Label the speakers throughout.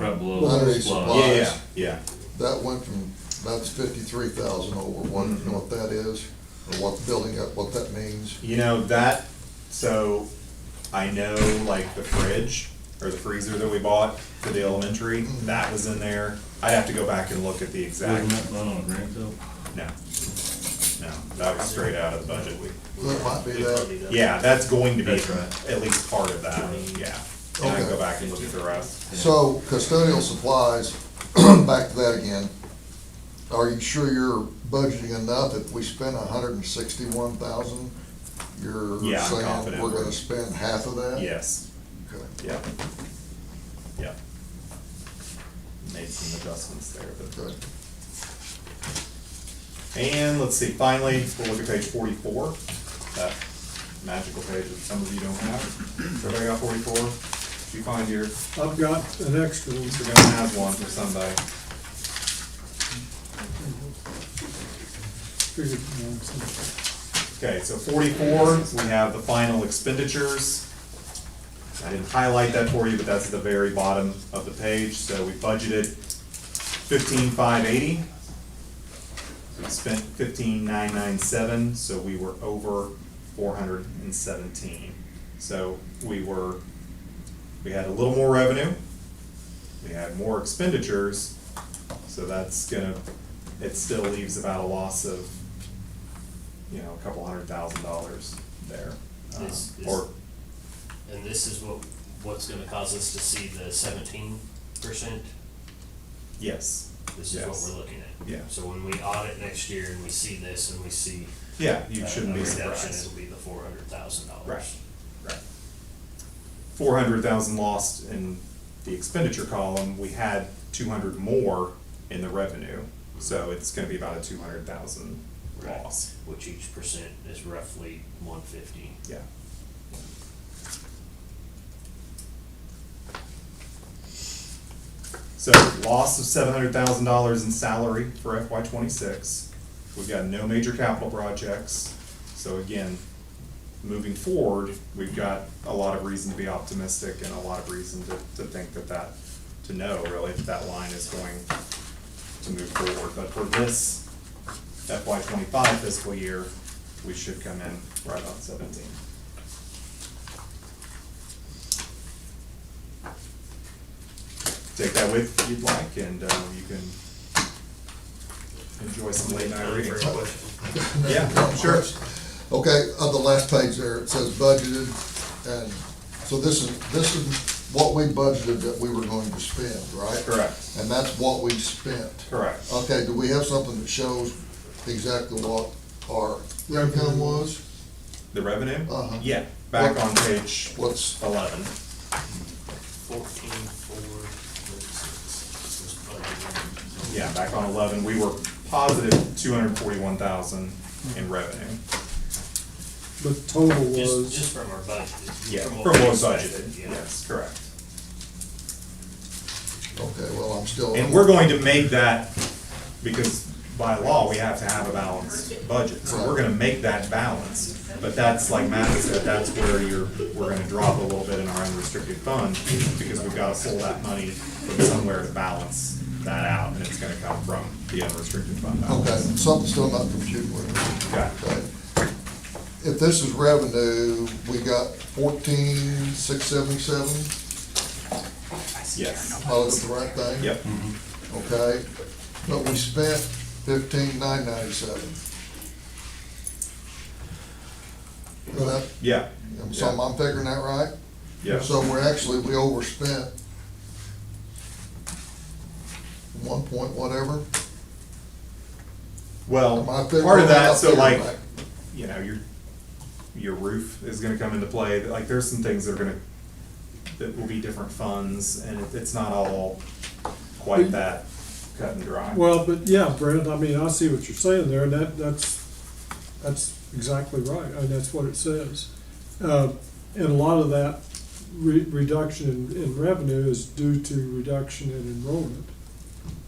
Speaker 1: Money
Speaker 2: Pueblo
Speaker 1: supply.
Speaker 2: Sloan.
Speaker 3: Yeah, yeah, yeah.
Speaker 1: That went from, that's fifty-three thousand over, what, you know what that is? Or what building, up, what that means?
Speaker 3: You know, that, so I know like the fridge or the freezer that we bought for the elementary, that was in there. I'd have to go back and look at the
Speaker 2: Wasn't
Speaker 3: exact,
Speaker 2: that not on Greenfield?
Speaker 3: no. No, that was straight out of the budget. We,
Speaker 1: That might be that,
Speaker 3: yeah, that's going to be
Speaker 2: That's right.
Speaker 3: at least part of that, yeah. And I can go
Speaker 1: Okay.
Speaker 3: back and look at the rest.
Speaker 1: so custodial supplies, back to that again. Are you sure you're budgeting enough? If we spend a hundred and sixty-one thousand, you're
Speaker 3: Yeah, I'm
Speaker 1: saying
Speaker 3: confident
Speaker 1: we're gonna
Speaker 3: we're-
Speaker 1: spend half of that?
Speaker 3: Yes,
Speaker 1: Okay.
Speaker 3: yeah. Yeah. Made some adjustments there, but.
Speaker 1: Okay.
Speaker 3: And let's see, finally, we'll look at page forty-four, that magical page that some of you don't have. Has Everybody got forty-four? Did you find yours?
Speaker 4: I've got an extra one.
Speaker 3: We're gonna have one for somebody.
Speaker 4: Figured it belonged somewhere.
Speaker 3: Okay, so forty-four, we have the final expenditures. I didn't highlight that for you, but that's at the very bottom of the page, so we budgeted fifteen-five-eighty. We spent fifteen-nine-nine-seven, so we were over four hundred and seventeen. So we were, we had a little more revenue, we had more expenditures, so that's gonna, it still leaves about a loss of you know, a couple hundred thousand dollars there. Um,
Speaker 5: Is- is-
Speaker 3: Or,
Speaker 5: And this is what, what's gonna cause us to see the seventeen percent?
Speaker 3: yes,
Speaker 5: This is what
Speaker 3: Yes.
Speaker 5: we're looking at?
Speaker 3: Yeah.
Speaker 5: So when we audit next year and we see this and we see.
Speaker 3: yeah, you
Speaker 5: uh,
Speaker 3: shouldn't
Speaker 5: a
Speaker 3: be
Speaker 5: reduction,
Speaker 3: surprised.
Speaker 5: It'll be the four hundred thousand dollars.
Speaker 3: Right, right. Four hundred thousand lost in the expenditure column, we had two hundred more in the revenue, so it's gonna be about a two hundred thousand
Speaker 5: Right.
Speaker 3: loss,
Speaker 5: Which each percent is roughly one fifty.
Speaker 3: yeah. So loss of seven hundred thousand dollars in salary for FY twenty-six. We've got no major capital projects. So again, moving forward, we've got a lot of reason to be optimistic and a lot of reason to, to think that that, to know really if that line is going to move forward. But for this FY twenty-five fiscal year, we should come in right about seventeen. take that with if you'd like, and uh, you can enjoy some late night reading. Yeah, sure.
Speaker 1: Okay, on the last page there, it says budgeted, and so this is, this is what we budgeted that we were going to spend, right?
Speaker 3: Correct,
Speaker 1: And that's what we spent.
Speaker 3: correct.
Speaker 1: Okay, do we have something that shows exactly what our income was?
Speaker 3: The revenue?
Speaker 1: Uh-huh.
Speaker 3: Yeah, back on page
Speaker 1: What's,
Speaker 3: eleven.
Speaker 5: Fourteen, four, thirty-six. This budget.
Speaker 3: Yeah, back on eleven, we were positive two hundred forty-one thousand in revenue.
Speaker 4: The total
Speaker 5: Just,
Speaker 4: was,
Speaker 5: just from our budget.
Speaker 3: Yeah, from
Speaker 5: we
Speaker 3: what was
Speaker 5: expected,
Speaker 3: budgeted,
Speaker 5: yeah.
Speaker 3: yes, correct.
Speaker 1: okay, well, I'm still.
Speaker 3: And we're going to make that, because by law, we have to have a balanced budget, so we're gonna make that balanced. But that's, like Matt said, that's where you're, we're gonna drop a little bit in our unrestricted fund, because we've gotta pull that money from somewhere to balance that out, and it's gonna come from the unrestricted fund
Speaker 1: Okay,
Speaker 3: balance.
Speaker 1: something's still not computed with me.
Speaker 3: Okay.
Speaker 1: Okay. If this is revenue, we got fourteen, six seventy-seven,
Speaker 3: Yes,
Speaker 1: I look at the right thing?
Speaker 3: yep,
Speaker 1: Okay, but we spent fifteen, nine ninety-seven.
Speaker 3: yeah,
Speaker 1: So I'm figuring that right?
Speaker 3: yeah,
Speaker 1: So we're actually, we overspent one point whatever.
Speaker 3: well,
Speaker 1: Am I
Speaker 3: part
Speaker 1: figuring that
Speaker 3: of that,
Speaker 1: out
Speaker 3: so
Speaker 1: there
Speaker 3: like,
Speaker 1: right?
Speaker 3: you know, your, your roof is gonna come into play, like, there's some things that are gonna, that will be different funds, and it- it's not all quite that cut and dry.
Speaker 4: well, but yeah, Brent, I mean, I see what you're saying there, and that, that's, that's exactly right, and that's what it says. Uh, And a lot of that re- reduction in, in revenue is due to reduction in enrollment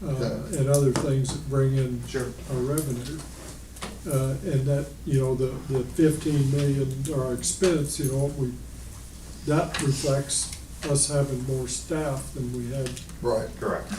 Speaker 4: uh,
Speaker 1: Okay.
Speaker 4: and other things that bring in
Speaker 3: Sure.
Speaker 4: our revenue. Uh, and that, you know, the, the fifteen million, our expense, you know, we, that reflects
Speaker 6: us having more staff than we had
Speaker 4: Right.
Speaker 3: Correct.